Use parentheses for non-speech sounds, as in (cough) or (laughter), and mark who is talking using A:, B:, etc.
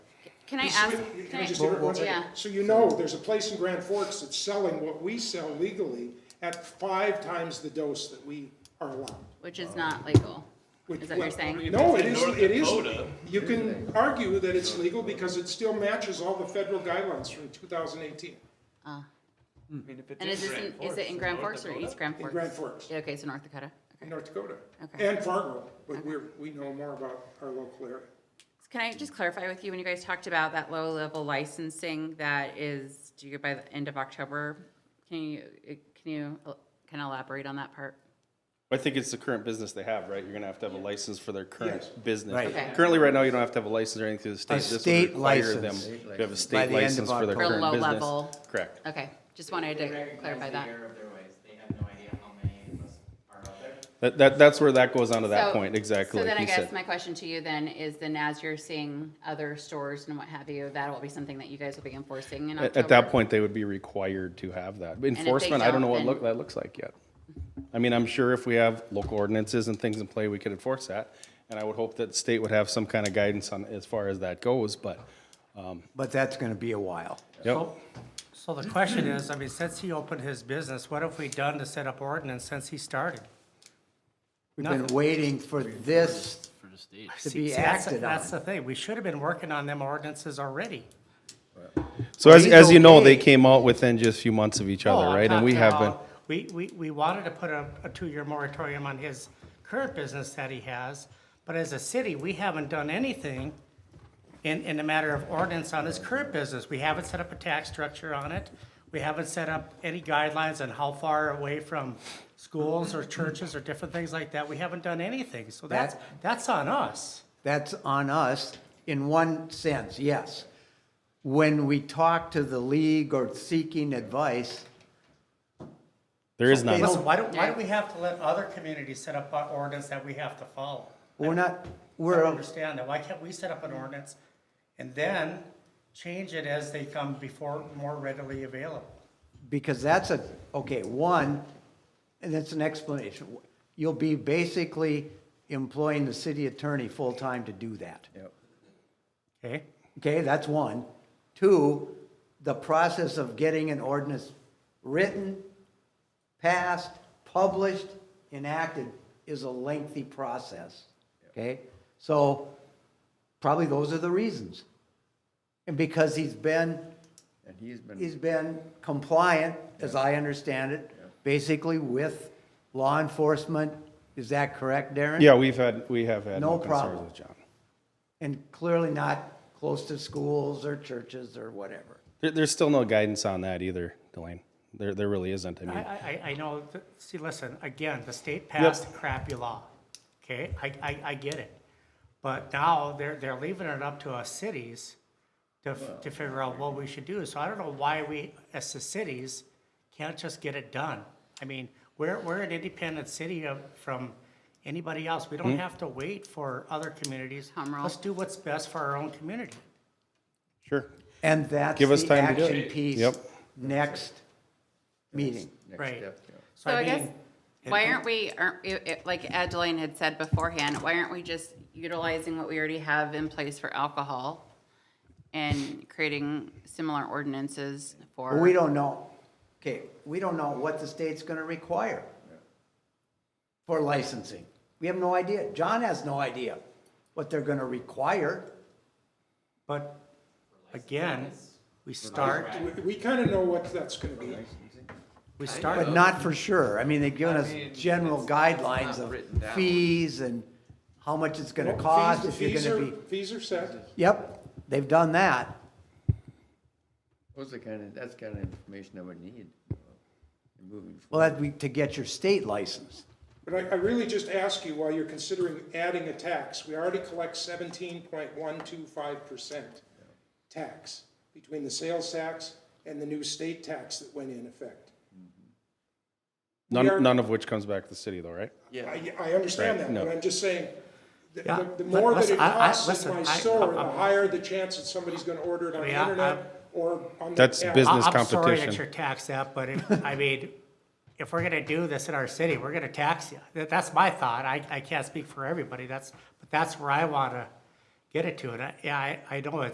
A: Can I
B: Hey,
A: ask?
B: so wait,
A: can
B: Can I
A: I-
B: just interrupt one second?
A: Yeah.
B: So you know, there's a place in Grand Forks that's selling what we sell legally at five times the dose that we are allowed.
A: Which is not legal,
B: Which-
A: is that what you're
B: well,
A: saying?
B: No,
C: If
B: it
C: it's
B: is,
C: in North
B: it is,
C: Dakota-
B: you can argue that it's legal because it still matches all the federal guidelines from 2018
A: And is this, in- is it in Grand Forks or East Grand
B: in
A: Forks?
B: Grand Forks,
A: Yeah, Okay, so North Dakota,
B: in
A: okay.
B: North Dakota.
A: Okay.
B: And Fargo, but we're, we know more about our local area.
A: Can I just clarify with you, when you guys talked about that low-level licensing that is due by the end of October, can you, can you, can I elaborate on that part?
D: I think it's the current business they have, right? You're gonna have to have a license for their current
B: Yes.
D: business.
E: Right.
A: Okay.
D: Currently, right now, you don't have to have a license or anything through the state.
E: A
D: This would
E: state
D: require them
E: license.
D: to have a
E: By
D: state
E: the end of
D: license for their
E: October.
A: For
D: current
A: low
D: business.
A: level.
D: Correct.
A: Okay, just wanted
F: They
A: to
F: recognize
A: clarify
F: the
A: that.
F: error of their ways. They have no idea how many of us are out there.
D: That, that, that's where that goes on to that
A: So-
D: point, exactly
A: So
D: like
A: then I
D: you
A: guess
D: said.
A: my question to you then is then as you're seeing other stores and what have you, that'll be something that you guys will be enforcing in
D: At,
A: October?
D: at that point, they would be required to have that. Enforcement, I don't know what
A: don't,
D: look,
A: then-
D: that looks like yet. I mean, I'm sure if we have local ordinances and things in play, we could enforce that. And I would hope that the state would have some kind of guidance on, as far as that goes, but,
E: But that's going to be a while.
D: yep.
G: So the question is, I mean, since he opened his business, what have we done to set up ordinance since he started?
E: We've been
G: Nothing.
E: waiting for this to
G: See,
E: be
G: that's-
E: acted on.
G: That's the thing, we should have been working on them ordinances already.
D: So as,
E: He's
D: as you know, they
E: okay.
D: came out within just a few months of each
G: Oh,
D: other,
G: I'm
D: right? And we
G: talking
D: have been,
G: about- We, we, we wanted to put a, a two-year moratorium on his current business that he has, but as a city, we haven't done anything in, in the matter of ordinance on his current business. We haven't set up a tax structure on it. We haven't set up any guidelines on how far away from schools or churches or different things like that. We haven't done anything, so that's, that's on us.
E: That's on us in one sense, yes. When we talk to the league or seeking advice,
D: there is none.
E: They
G: Listen, why do, why do we have to let other communities set up our ordinance that we have to follow?
E: we're not,
G: I don't
E: we're,
G: understand that. Why can't we set up an ordinance and then change it as they come before more readily available?
E: because that's a, okay, one, and that's an explanation. You'll be basically employing the city attorney full-time to do that.
H: Eh?
G: Okay,
E: Okay, that's one. Two, the process of getting an ordinance written, passed, published, enacted is a lengthy process. Okay? So probably those are the reasons. And because he's been,
H: And he's been,
E: he's been compliant, as I understand it, basically with law enforcement. Is that correct, Darren?
D: Yeah, we've had, we have had
E: No
D: no concerns
E: problem.
D: with John.
E: And clearly not close to schools or churches or whatever.
D: There, there's still no guidance on that either, Delane. There, there really isn't. I
G: I,
D: mean,
G: I, I- I know, that- see, listen, again, the state passed a crappy law, okay? I, I, I get it. But now they're, they're leaving it up to us cities to, f- to figure out what we should do. So I don't know why we, as the cities, can't just get it done. I mean, we're, we're an independent city of, from anybody else. We
H: Hmm?
G: don't have to wait for other communities.
A: Home rule.
G: Let's do what's best for our own community.
D: sure.
E: And that's
D: Give us
E: the
D: time to do
E: action
D: it.
E: piece
D: Yep.
E: next meeting.
G: Right.
H: step, yeah.
G: So
A: So I guess,
G: mean,
A: why aren't we, aren't, it- it- like Adeline had said beforehand, why aren't we just utilizing what we already have in place for alcohol? And creating similar ordinances for.
E: We don't know, okay, we don't know what the state's gonna require for licensing. We have no idea. John has no idea what they're gonna require.
G: But again, we start,
B: We- We kind of know what that's going to be.
G: we start.
E: But not for sure. I mean, they've given us general guidelines of fees and how much it's gonna cost, if you're
B: Fees are-
E: gonna be,
B: Fees are set.
E: yep, they've done that.
H: Those are kind of, that's kind of information I would need uh, moving forward.
E: Well, that'd be to get your state license.
B: But I, I really just ask you, while you're considering adding a tax, we already collect seventeen point one two five percent tax between the sales tax and the new state tax that went in effect. are-
D: None, none of which comes back to the city though, right?
B: I, I understand
D: Right,
B: that,
D: no.
B: but I'm just saying, the-
G: Yeah,
B: the, the
G: but
B: more that
G: listen,
B: it
G: I- I-
B: costs at
G: listen,
B: my
G: I-
B: store, the
G: I-
B: higher the chance that somebody's gonna order it on the
G: Yeah, I-
B: internet or on the.
D: That's
B: app.
D: business
G: I- I'm sorry
D: competition.
G: that you're taxed that, but if, (laughs) I mean, if we're gonna do this in our city, we're gonna tax you. That, that's my thought. I, I can't speak for everybody. That's, but that's where I wanna get it to. And I, yeah, I, I know it's